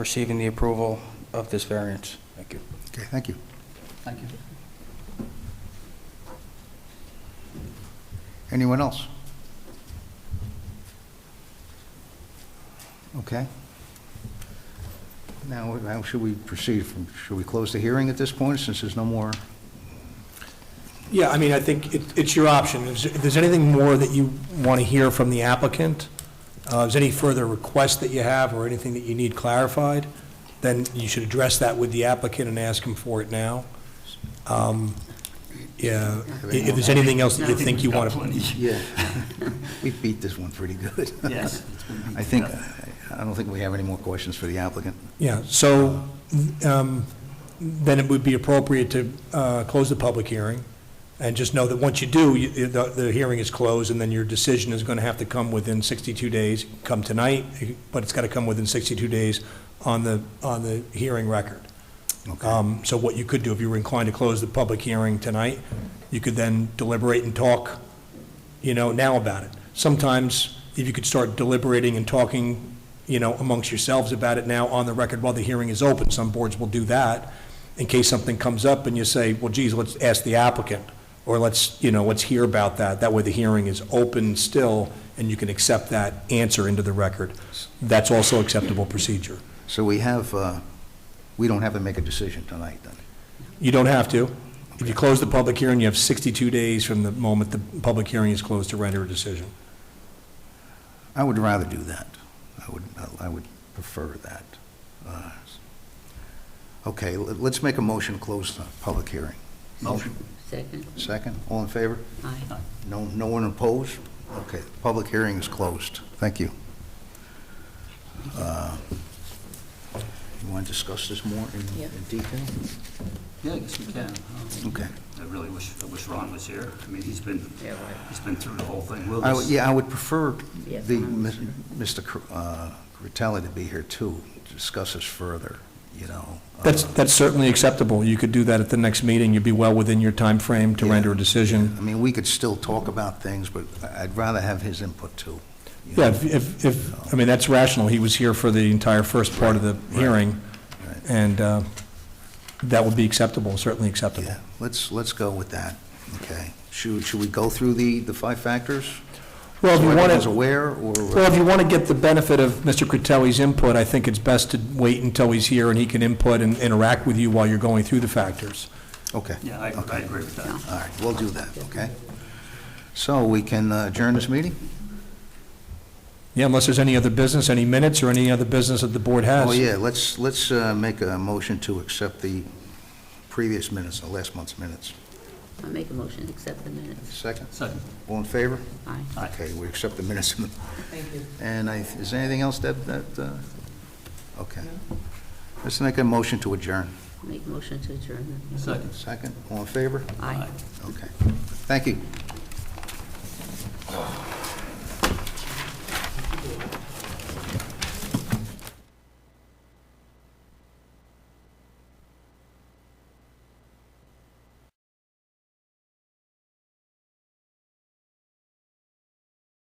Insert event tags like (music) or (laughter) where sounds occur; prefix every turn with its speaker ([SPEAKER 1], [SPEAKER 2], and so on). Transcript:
[SPEAKER 1] receiving the approval of this variance. Thank you.
[SPEAKER 2] Okay, thank you.
[SPEAKER 1] Thank you.
[SPEAKER 2] Anyone else? Okay. Now, how should we proceed? from Should we close the hearing at this point, since there's no more?
[SPEAKER 3] Yeah, I mean, I think it- it's your option. Is- If there's anything more that you want to hear from the applicant, uh, is any further requests that you have or anything that you need clarified, then you should address that with the applicant and ask him for it now. Um, Yeah, i- if there's anything else that you think you want to,
[SPEAKER 2] (laughs) Yeah. We beat this one pretty good.
[SPEAKER 4] Yes.
[SPEAKER 2] (laughs) I think, I don't think we have any more questions for the applicant.
[SPEAKER 3] yeah, so um, then it would be appropriate to uh, close the public hearing, and just know that once you do, you- the the hearing is closed, and then your decision is going to have to come within 62 days, come tonight, but it's got to come within 62 days on the, on the hearing record.
[SPEAKER 2] Okay.
[SPEAKER 3] Um, So what you could do, if you were inclined to close the public hearing tonight, you could then deliberate and talk, you know, now about it. Sometimes, if you could start deliberating and talking, you know, amongst yourselves about it now on the record while the hearing is open, some boards will do that, in case something comes up and you say, well, geez, let's ask the applicant, or let's, you know, let's hear about that. That way the hearing is open still, and you can accept that answer into the record. That's also acceptable procedure.
[SPEAKER 2] So we have, uh, we don't have to make a decision tonight, then?
[SPEAKER 3] You don't have to. If you close the public hearing, you have 62 days from the moment the public hearing is closed to render a decision.
[SPEAKER 2] I would rather do that. I would, I would prefer that. Uh, Okay, let- let's make a motion to close the public hearing.
[SPEAKER 4] Motion. Second,
[SPEAKER 2] Second, all in favor?
[SPEAKER 4] aye.
[SPEAKER 2] No, no one opposed? Okay, the public hearing is closed. Thank you. Uh, You want to discuss this more in
[SPEAKER 4] Yeah.
[SPEAKER 2] in detail?
[SPEAKER 5] Yeah, I guess we can. Um,
[SPEAKER 2] Okay.
[SPEAKER 5] I really wish, I wish Ron was here. I mean, he's been,
[SPEAKER 4] Yeah, right.
[SPEAKER 5] he's been through the whole thing with
[SPEAKER 2] I would-
[SPEAKER 5] us.
[SPEAKER 2] Yeah, I would prefer
[SPEAKER 4] Yeah.
[SPEAKER 2] the, Mis- Mr. Cr- uh, Critelli to be here too, to discuss this further, you know. Uh,
[SPEAKER 3] That's, that's certainly acceptable. You could do that at the next meeting. You'd be well within your time frame to
[SPEAKER 2] Yeah.
[SPEAKER 3] render a decision.
[SPEAKER 2] I mean, we could still talk about things, but I- I'd rather have his input too. you know.
[SPEAKER 3] Yeah, if- if, if, I mean, that's rational. He was here for the entire first part of the hearing,
[SPEAKER 2] Right.
[SPEAKER 3] and uh, that would be acceptable, certainly acceptable.
[SPEAKER 2] Yeah, let's, let's go with that, okay? Should, should we go through the, the five factors?
[SPEAKER 3] Well, if
[SPEAKER 2] So
[SPEAKER 3] you want
[SPEAKER 2] everyone's
[SPEAKER 3] to,
[SPEAKER 2] aware, or?
[SPEAKER 3] well, if you want to get the benefit of Mr. Critelli's input, I think it's best to wait until he's here and he can input and interact with you while you're going through the factors.
[SPEAKER 2] Okay,
[SPEAKER 5] Yeah, I, I agree with that.
[SPEAKER 2] all right, we'll do that, okay? So we can uh, adjourn this meeting?
[SPEAKER 3] Yeah, unless there's any other business, any minutes, or any other business that the board has.
[SPEAKER 2] Oh, yeah, let's, let's uh, make a motion to accept the previous minutes, the last month's minutes.
[SPEAKER 4] I make a motion, to accept the minutes,
[SPEAKER 2] Second,
[SPEAKER 5] Second.
[SPEAKER 2] all in favor?
[SPEAKER 4] aye.
[SPEAKER 2] Okay, we accept the minutes. Thank you. And I, is there anything else that, that, uh, okay. Let's make a motion to adjourn.
[SPEAKER 4] Make a motion to adjourn.
[SPEAKER 5] Second.
[SPEAKER 2] Second, all in favor?
[SPEAKER 4] Aye.
[SPEAKER 2] Okay, thank you.